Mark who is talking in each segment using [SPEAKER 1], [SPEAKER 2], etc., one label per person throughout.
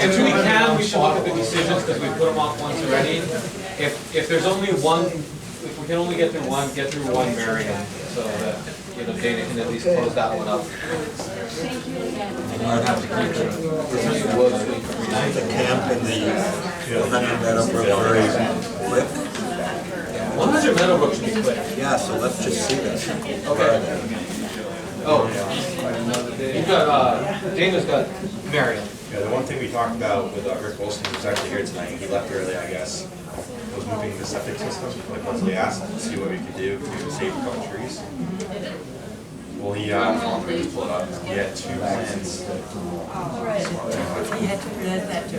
[SPEAKER 1] If we can, we should look at the decisions, because we put them off once already. If, if there's only one, if we can only get through one, get through one Marion, so that, you know, Dana can at least close that one up.
[SPEAKER 2] I'd have to keep the, the three woods, the camp and the, the hundred meadow brook very quick.
[SPEAKER 1] One hundred Meadowbrook should be quick.
[SPEAKER 2] Yeah, so let's just see this.
[SPEAKER 1] Okay. Oh, you've got, uh, Dana's got Marion.
[SPEAKER 3] Yeah, the one thing we talked about with uh, Rick Wilson, who's actually here tonight, he left early, I guess, was moving the septic system, like Leslie asked, to see what we could do to save a couple trees. Well, he, uh, he pulled up, he had two plans.
[SPEAKER 4] He had to present that to,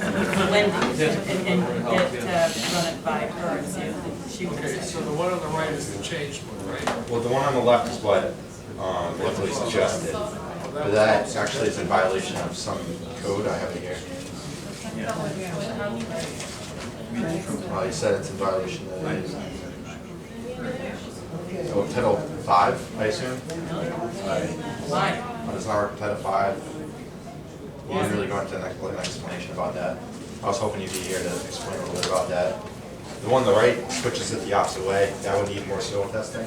[SPEAKER 4] to Wendy and, and get, uh, run it by her and see if she would
[SPEAKER 5] Okay, so
[SPEAKER 4] accept
[SPEAKER 5] the one on the right is the changed one, right?
[SPEAKER 3] Well, the one on the left is what, um, Leslie suggested, but that actually is in violation of some code I have here. Uh, he said it's in violation of, oh, Title Five, I assume?
[SPEAKER 4] it. Why?
[SPEAKER 3] on this hour, Title Five. We didn't really go into an ex- an explanation about that. I was hoping you'd be here to explain a little bit about that. The one on the right switches it the opposite way, that would need more soil testing.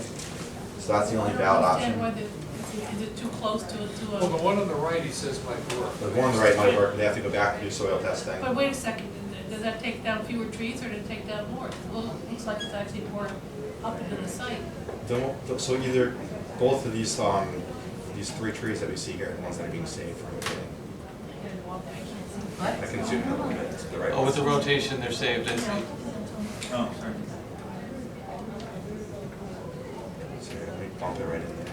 [SPEAKER 3] So that's the only valid
[SPEAKER 6] understand
[SPEAKER 3] option.
[SPEAKER 6] whether, is it too close to, to
[SPEAKER 5] Well, the
[SPEAKER 6] a,
[SPEAKER 5] one on the right, he says might work.
[SPEAKER 3] The one on the right might work, they have to go back and do soil testing.
[SPEAKER 6] but wait a second, does that take down fewer trees or does it take down more? Well, it looks like it's actually more up into the site.
[SPEAKER 3] Don't- don't- So either, both of these, um, these three trees that we see here, are the ones that are being saved from the beginning. I
[SPEAKER 4] What?
[SPEAKER 3] can zoom in a little bit to the right.
[SPEAKER 1] Oh, with the rotation, they're saved, I see.
[SPEAKER 3] So here, let me bump it right in there.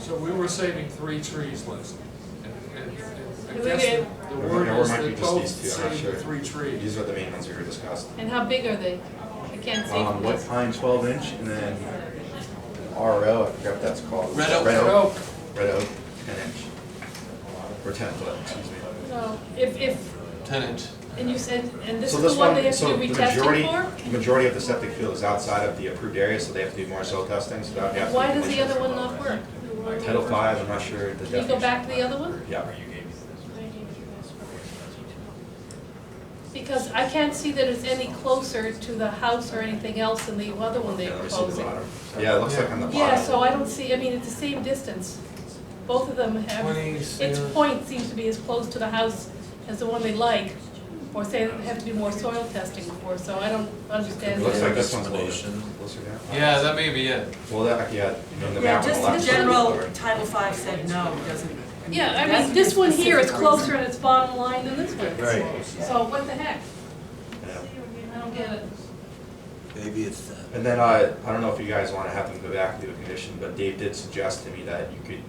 [SPEAKER 5] So we were saving three trees, Leslie. And- and- and I guess the- the
[SPEAKER 3] Or-
[SPEAKER 5] word
[SPEAKER 3] or it
[SPEAKER 5] is
[SPEAKER 3] might be
[SPEAKER 5] that
[SPEAKER 3] just
[SPEAKER 5] both
[SPEAKER 3] these two, I'm not
[SPEAKER 5] saved the
[SPEAKER 3] sure.
[SPEAKER 5] three trees.
[SPEAKER 3] These are the main ones we were discussing.
[SPEAKER 6] And how big are they? I can't see.
[SPEAKER 3] Um,
[SPEAKER 6] from
[SPEAKER 3] white
[SPEAKER 6] this.
[SPEAKER 3] pine twelve inch and then RO, I forget what that's called.
[SPEAKER 1] Red oak.
[SPEAKER 3] Red
[SPEAKER 5] Red
[SPEAKER 3] oak,
[SPEAKER 5] oak.
[SPEAKER 3] Red oak, ten inch. Or ten foot, excuse me.
[SPEAKER 6] So, if, if,
[SPEAKER 1] Tenant.
[SPEAKER 6] and you said, and this
[SPEAKER 3] So
[SPEAKER 6] is the one
[SPEAKER 3] one-
[SPEAKER 6] they have
[SPEAKER 3] so
[SPEAKER 6] to
[SPEAKER 3] the
[SPEAKER 6] be retested
[SPEAKER 3] majority-
[SPEAKER 6] for?
[SPEAKER 3] The majority of the septic field is outside of the approved area, so they have to do more soil testing, so that would have to.
[SPEAKER 6] Why
[SPEAKER 3] be
[SPEAKER 6] does the
[SPEAKER 3] conditions.
[SPEAKER 6] other one not work?
[SPEAKER 3] Title five, I'm not sure the
[SPEAKER 6] Can
[SPEAKER 3] definition.
[SPEAKER 6] you go back to the other one?
[SPEAKER 3] Yeah.
[SPEAKER 6] Because I can't see that it's any closer to the house or anything else than the other one they
[SPEAKER 3] Yeah, let
[SPEAKER 6] were
[SPEAKER 3] me see the
[SPEAKER 6] closing.
[SPEAKER 3] bottom. Yeah, it looks like on the bottom.
[SPEAKER 6] Yeah, so I don't see, I mean, it's the same distance. Both of them have, its point seems to be as close to the house as the one they like, or say they have to do more soil testing for, so I don't
[SPEAKER 3] It
[SPEAKER 6] understand.
[SPEAKER 3] looks
[SPEAKER 6] that.
[SPEAKER 3] like this one's a little
[SPEAKER 2] Explanation.
[SPEAKER 3] bit closer down.
[SPEAKER 1] Yeah, that may be it.
[SPEAKER 3] Well, that, yeah, you know, the
[SPEAKER 4] Yeah,
[SPEAKER 3] map on the
[SPEAKER 4] just
[SPEAKER 3] left.
[SPEAKER 4] in
[SPEAKER 3] is a little
[SPEAKER 4] general,
[SPEAKER 3] lower.
[SPEAKER 4] Title V said no, doesn't.
[SPEAKER 6] Yeah, I
[SPEAKER 4] that's
[SPEAKER 6] mean, this one here is
[SPEAKER 4] specific
[SPEAKER 6] closer in its bottom line than this one.
[SPEAKER 3] Right.
[SPEAKER 6] So what the heck?
[SPEAKER 3] Yeah.
[SPEAKER 6] I don't get it.
[SPEAKER 2] Maybe it's that.
[SPEAKER 3] And then, uh, I don't know if you guys wanna have them go back and do a condition, but Dave did suggest to me that you could,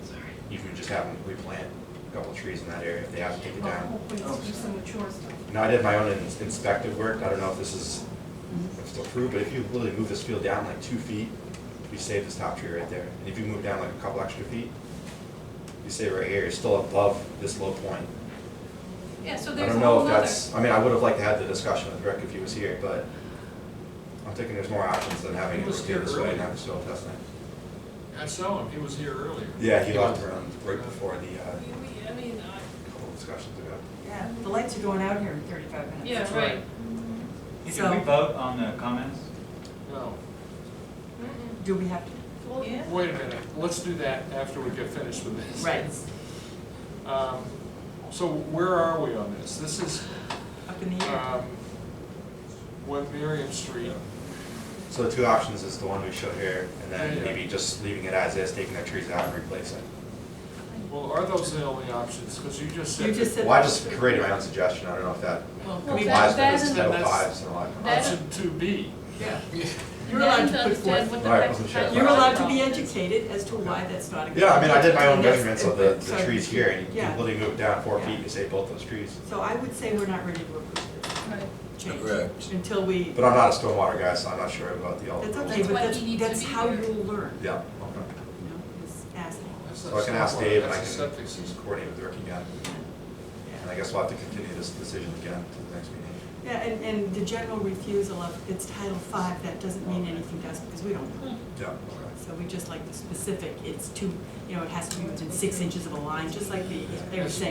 [SPEAKER 3] you could just have them replant a couple trees in that area if they have to take it
[SPEAKER 6] Well,
[SPEAKER 3] down.
[SPEAKER 6] Hopefully it's just some mature stuff.
[SPEAKER 3] Now, I did my own ins- inspective work, I don't know if this is, if it's approved, but if you literally move this field down like two feet, you save this top tree right there, and if you move down like a couple extra feet, you save right here, you're still above this low point.
[SPEAKER 6] Yeah, so
[SPEAKER 3] I
[SPEAKER 6] there's a
[SPEAKER 3] don't know
[SPEAKER 6] whole
[SPEAKER 3] if
[SPEAKER 6] other.
[SPEAKER 3] that's, I mean, I would have liked to have the discussion with Rick if he was here, but I'm thinking there's more options than having
[SPEAKER 5] He
[SPEAKER 3] it
[SPEAKER 5] was
[SPEAKER 3] rotated
[SPEAKER 5] here
[SPEAKER 3] this way and
[SPEAKER 5] earlier.
[SPEAKER 3] have the soil testing.
[SPEAKER 5] I saw him, he was here earlier.
[SPEAKER 3] Yeah, he left around right before the, uh,
[SPEAKER 6] We- we- I mean, I-
[SPEAKER 3] couple discussions ago.
[SPEAKER 4] Yeah, the lights are going out here in thirty-five minutes.
[SPEAKER 6] yeah, right.
[SPEAKER 7] Did we vote on the comments?
[SPEAKER 5] No.
[SPEAKER 6] Mm-mm.
[SPEAKER 4] Do we have to?
[SPEAKER 6] Well,
[SPEAKER 5] Wait a minute, let's do that after we get finished with this.
[SPEAKER 4] Right,
[SPEAKER 5] Um, So where are we on this? This is,
[SPEAKER 4] up in the air.
[SPEAKER 5] um, when Miriam Street,
[SPEAKER 3] So the two options is the one we showed here, and
[SPEAKER 5] Yeah,
[SPEAKER 3] then
[SPEAKER 5] yeah.
[SPEAKER 3] maybe just leaving it as is, taking the trees out and replacing.
[SPEAKER 5] well, are those the only options? Because you just said.
[SPEAKER 4] You just said.
[SPEAKER 3] Well, I just created my own suggestion, I don't know if that
[SPEAKER 4] Well,
[SPEAKER 6] Well,
[SPEAKER 4] we-
[SPEAKER 3] complies
[SPEAKER 6] that
[SPEAKER 3] with
[SPEAKER 6] is-
[SPEAKER 3] this Title
[SPEAKER 5] that's-
[SPEAKER 3] Fives and all that.
[SPEAKER 6] that-
[SPEAKER 5] Option two B.
[SPEAKER 4] Yeah. You're
[SPEAKER 6] Then
[SPEAKER 4] allowed
[SPEAKER 6] to
[SPEAKER 4] to put
[SPEAKER 6] understand
[SPEAKER 4] forth,
[SPEAKER 6] what the
[SPEAKER 3] Right,
[SPEAKER 6] heck
[SPEAKER 3] wasn't
[SPEAKER 6] kind
[SPEAKER 3] sure.
[SPEAKER 6] of-
[SPEAKER 4] you're allowed to be educated as to why that's not a good.
[SPEAKER 3] Yeah, I mean, I did my own
[SPEAKER 4] Yes,
[SPEAKER 3] measurements of the, the
[SPEAKER 4] so-
[SPEAKER 3] trees here, and you
[SPEAKER 4] Yeah.
[SPEAKER 3] can literally move it down four
[SPEAKER 4] Yeah.
[SPEAKER 3] feet, you save both those trees.
[SPEAKER 4] So I would say we're not ready to approve this
[SPEAKER 6] Right.
[SPEAKER 4] change.
[SPEAKER 2] Correct.
[SPEAKER 4] Until we,
[SPEAKER 3] But I'm not a stormwater guy, so I'm not sure about the all.
[SPEAKER 4] that's
[SPEAKER 6] That's
[SPEAKER 4] okay, but
[SPEAKER 6] why
[SPEAKER 4] that's,
[SPEAKER 6] he needs to
[SPEAKER 4] that's
[SPEAKER 6] be
[SPEAKER 4] how
[SPEAKER 6] here.
[SPEAKER 4] you'll learn,
[SPEAKER 3] Yeah,
[SPEAKER 4] you know, is asking.
[SPEAKER 3] so I can ask Dave and I
[SPEAKER 5] That's a
[SPEAKER 3] can
[SPEAKER 5] septic system.
[SPEAKER 3] coordinate with Rick again, and I guess we'll have to continue this decision again to the next meeting.
[SPEAKER 4] Yeah, and, and the general refusal of, it's Title V, that doesn't mean anything to us, because we don't
[SPEAKER 6] Hmm.
[SPEAKER 4] know.
[SPEAKER 3] Yeah, okay.
[SPEAKER 4] So we just like the specific, it's two, you know, it has to be within six inches of a line, just like the, they were saying.